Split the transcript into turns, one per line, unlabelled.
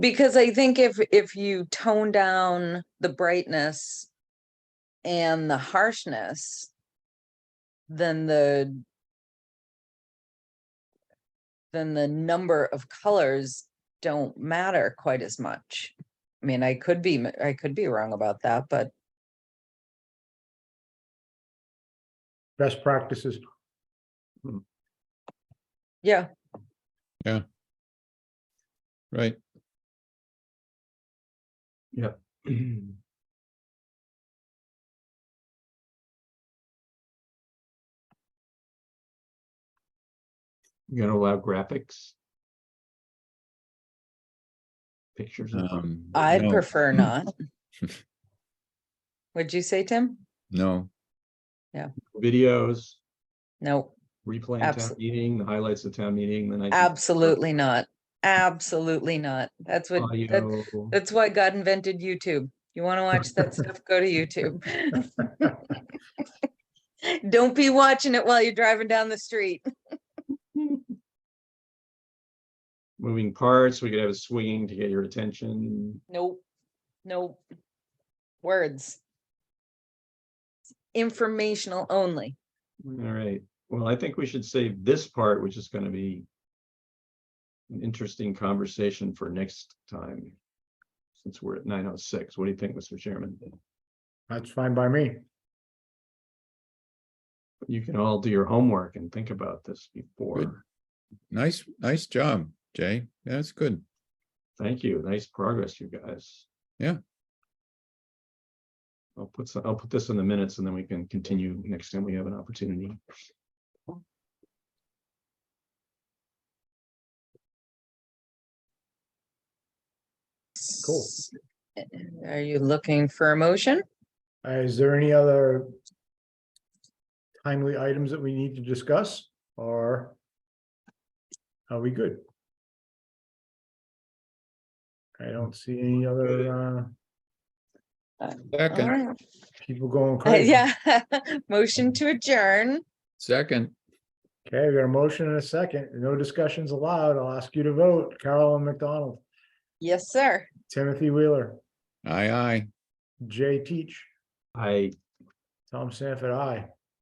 Because I think if, if you tone down the brightness and the harshness, then the then the number of colors don't matter quite as much. I mean, I could be, m- I could be wrong about that, but
best practices.
yeah,
Right,
Mm-hmm. You're gonna allow graphics? Pictures? in front.
um.
I'd
no,
prefer not. Would you say, Tim?
No,
Videos,
No,
replaying town
Abso-
meeting, the highlights of town meeting, the night. before,
absolutely not. Absolutely not. That's what, that-
audio.
that's why God invented YouTube. You want to watch that stuff, go to YouTube. Don't be watching it while you're driving down the street.
Moving parts, we could have a swinging to get your attention.
Nope, nope. Words. Informational only.
All right, well, I think we should save this part, which is gonna be an interesting conversation for next time. Since we're at nine oh six, what do you think, Mr. Chairman?
That's fine by me.
You can all do your homework and think about this before.
nice, nice job, Jay. That's good.
Thank you. Nice progress, you guys.
Yeah.
I'll put some, I'll put this in the minutes and then we can continue next time we have an opportunity.
Cool.
S- Are you looking for a motion?
Uh, Is there any other timely items that we need to discuss or are we good? I don't see any other uh,
All
Second,
right.
people going
Uh,
crazy.
Yeah, motion to adjourn.
second,
Okay, we got a motion and a second. No discussions allowed. I'll ask you to vote. Carolyn McDonald,
Yes, sir.
Timothy Wheeler,
aye, aye.
Jay Teach,
I
Tom Sanford, I.